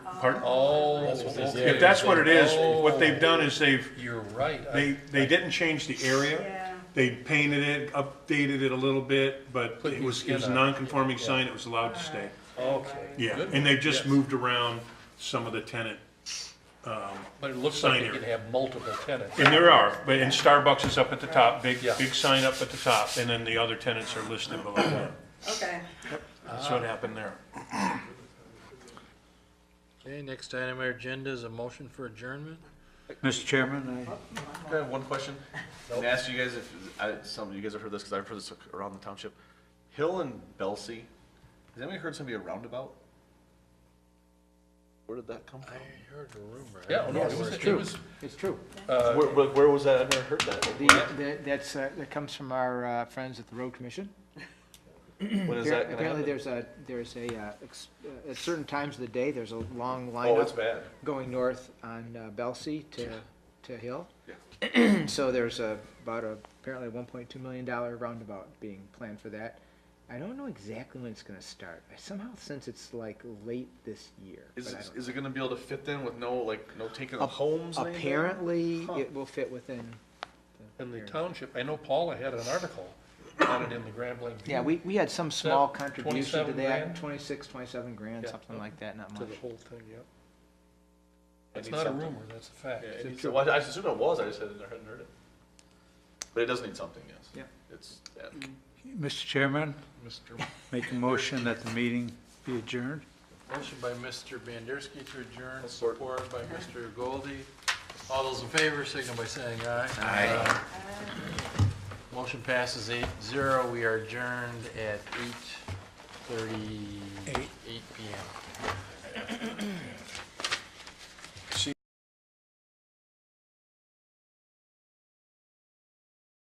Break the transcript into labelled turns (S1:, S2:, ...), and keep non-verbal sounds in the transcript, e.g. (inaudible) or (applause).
S1: Pardon?
S2: Oh.
S3: That's what this
S2: okay.
S1: If that's what it is,
S2: Oh,
S1: what they've done is they've,
S2: You're right. I-
S1: they, they didn't change the area.
S3: Yeah,
S1: They painted it, updated it a little bit, but
S2: Put
S1: it
S2: your
S1: was, it was a
S2: skin up.
S1: non-conforming sign, it was allowed to stay.
S2: Okay.
S1: Yeah,
S2: Good.
S1: and they've just
S2: Yes.
S1: moved around some of the tenant,
S2: But it looks
S1: sign
S2: like you
S1: here.
S2: can have multiple tenants.
S1: and there are, but, and Starbucks is up at the top, big,
S2: Yeah.
S1: big sign up at the top, and then the other tenants are listed below that.
S3: okay.
S1: That's what happened there.
S4: Okay, next item on our agenda is a motion for adjournment.
S5: Mr. Chairman, I-
S6: I have one question. Can I ask you guys if, I, some, you guys have heard this, because I've heard this around the township. Hill and Belsey, has anybody heard somebody a roundabout? Where did that come from?
S4: I heard a rumor.
S2: Yeah, no, it was, it was,
S7: It's true.
S6: Uh, Where, where- where was that? I've never heard that.
S7: The, the- that's, uh, that comes from our uh, friends at the Road Commission.
S6: When is that gonna
S7: Apparently,
S6: happen?
S7: there's a, there's a, uh, ex- uh, at certain times of the day, there's a long
S6: Oh, it's
S7: lineup
S6: bad.
S7: going north on uh, Belsey to, to Hill. (clears throat) So there's a, about a, apparently one point two million dollar roundabout being planned for that. I don't know exactly when it's gonna start. I somehow sense it's like late this year.
S6: Is,
S7: but I
S6: it-
S7: don't
S6: is it gonna be able to fit then with no, like, no taking
S7: know.
S6: of homes? and anything?
S7: Apparently, it will fit within. the
S2: in the
S7: area.
S2: township, I know Paula had an article on it in the Grand Blanc.
S7: Yeah, we, we had some small
S2: that
S7: contribution
S2: 27
S7: to
S2: grand?
S7: that, twenty-six, twenty-seven grand,
S2: Yeah.
S7: something like that, not
S2: To
S7: much.
S2: the whole thing, yep.
S6: I
S2: It's
S6: need
S2: not a
S6: something.
S2: rumor, that's a fact.
S6: Yeah, it needs- well, I assumed it was, I just hadn't hadn't heard it. But it does need something, yes.
S7: Yeah.
S6: It's, yeah.
S5: Mr. Chairman,
S2: Mr.
S5: make a motion that the meeting be adjourned.
S4: Motion by Mr. Bandersky to adjourn,
S6: Support.
S4: support by Mr. Goldie. All those in favor, signal by saying aye. Aye. Motion passes eight zero. We are adjourned at eight thirty-eight PM.